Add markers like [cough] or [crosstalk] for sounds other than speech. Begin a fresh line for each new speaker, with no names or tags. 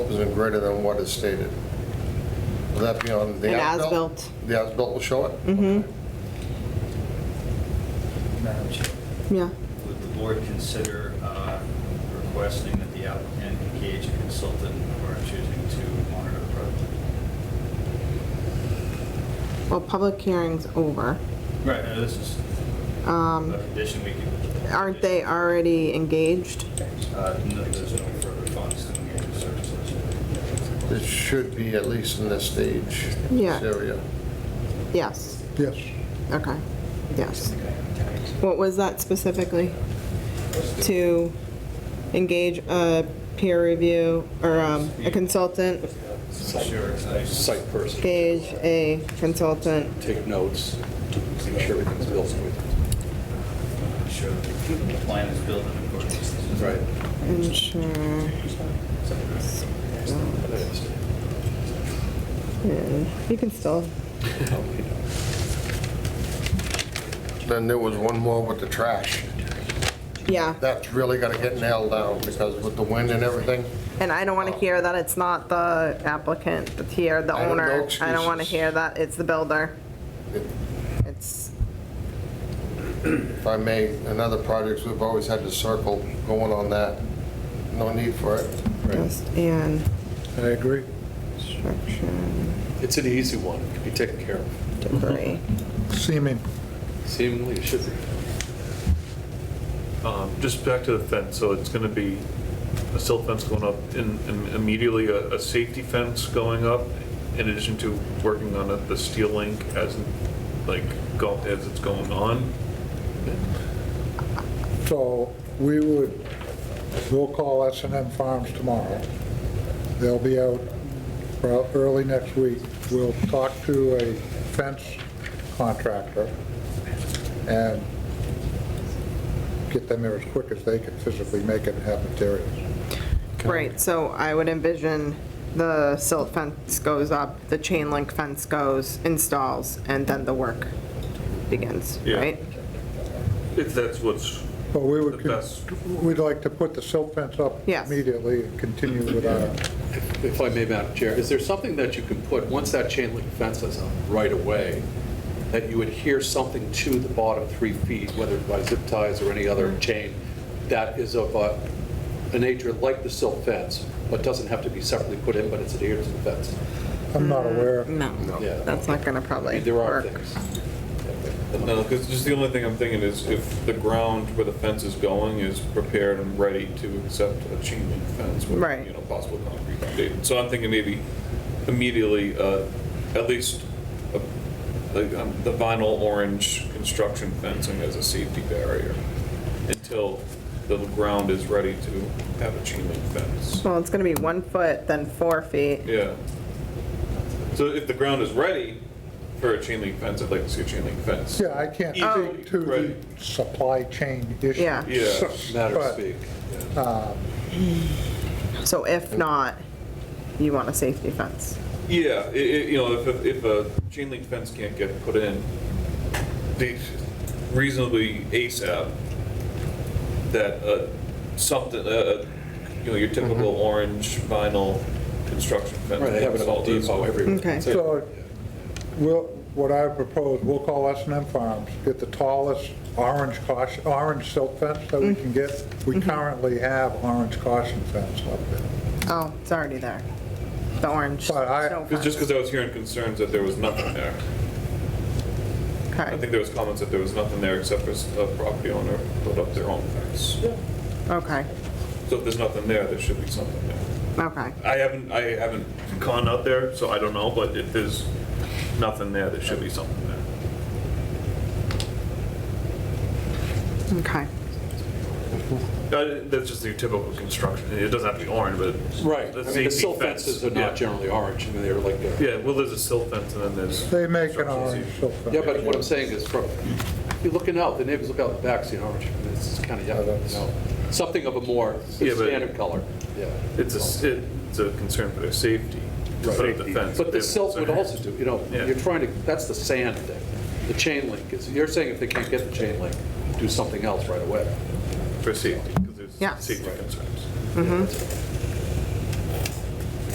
and greater than what is stated. Will that be on the
An
as-built?
as-built.
The as-built will show it? Mm-hmm.
Madam Chair,
Yeah.
would the board consider uh, requesting that the applicant engage a consultant or choosing to monitor the project?
Well, public hearing's over. Um,
Right, now this is a condition we can.
Aren't they already engaged?
Uh, no, There's no further funds to engage in services.
It should be at least in this stage.
Mm-hmm. Yeah.
This area.
Yes.
Yes.
Okay. Yes. What was that specifically? To engage a peer review or um, a consultant,
Sure, I-
site person,
engage a consultant.
take notes, make sure everything's built smoothly.
I'm sure the plan is built in accordance. with this.
Ensure Yeah, you can still,
Then there was one more with the trash.
yeah.
That's really gonna get nailed down because with the wind and everything,
And I don't want to hear that it's not the applicant that's here, the
I don't know
owner. I don't want to
excuses.
hear that it's the builder. It's,
if I may, in other projects, we've always had the circle going on that. No need for it.
just and
I agree.
construction
It's an easy one, it can be taken care of.
debris.
Seeming.
Seemingly, it should be.
Um, Just back to the fence, so it's going to be a silt fence going up and and immediately a, a safety fence going up in addition to working on the- the steel link as, like, go, as it's going on?
So we would, we'll call s and M Farms tomorrow. They'll be out prob- early next week. We'll talk to a fence contractor and get them there as quick as they can physically make it and have materials.
Right, so I would envision the silt fence goes up, the chain link fence goes, installs, and then the work begins,
Yeah.
right?
If that's what's
But we
the
would, con-
best.
we'd like to put the silt fence up
Yes.
immediately and continue with our
If I may, Madam Chair, is there something that you can put, once that chain link fence is up right away, that you adhere something to the bottom three feet, whether by zip ties or any other chain, that is of a, a nature like the silt fence, but doesn't have to be separately put in, but it's adhered to the fence?
I'm not
Mm-hmm.
aware.
No,
Yeah.
that's not gonna probably work.
There are things.
No, because just the only thing I'm thinking is if the ground where the fence is going is prepared and ready to accept a chain link fence with,
Right.
you know, possible concrete foundation. So I'm thinking maybe immediately, uh, at least uh, like, um, the vinyl orange construction fencing as a safety barrier until the ground is ready to have a chain link fence.
Well, it's gonna be one foot, then four feet.
Yeah. So if the ground is ready for a chain link fence, I'd like to see a chain link fence.
Yeah, I can't
Oh.
speak to the
Right.
supply chain issue.
Yeah.
Yeah.
[laughs] Matter of
But,
speak.
So if not, you want a safety fence.
Yeah, i i you know, if, if- if a chain link fence can't get put in they- reasonably ASAP, that uh, something, uh, you know, your typical orange vinyl construction fence.
Mm-hmm. Right, they have it at Home
installed is-
Depot everywhere.
Okay.
So, we'll, what I propose, we'll call s and M Farms, get the tallest orange caution, orange silk fence that we can get. We currently have orange caution fence up there.
Oh, it's already there. The orange.
But I-
snow
It's
fence.
Just because I was hearing concerns that there was nothing there. I think
Okay,
there was comments that there was nothing there except for s- a property owner put up their own fence.
okay,
So if there's nothing there, there should be something there.
okay.
I haven't, I haven't gone out there, so I don't know, but if there's nothing there, there should be something there.
Okay.
Uh, That's just your typical construction, it doesn't have to be orange, but.
Right,
The
I mean, the
safety
silt
fence,
fences are
yeah.
not generally orange, I mean, they're like, a-
Yeah, well, there's a silt fence and then there's.
They make an
construction
orange
season.
silk fence.
yeah, but what I'm saying is, from, you're looking out, the neighbors look out the back, see an orange, and it's kind of, yellow, you know, something of a more
Yeah, but-
standard color, yeah.
It's a, s- it's a concern for their safety, but the fence.
But the
they have
silt would
concern.
also do, you know,
Yeah.
you're trying to, that's the sand thing, the chain link is, you're saying if they can't get the chain link, do something else right away.
For safety, because there's
Yes.
safety concerns.
Mm-hmm.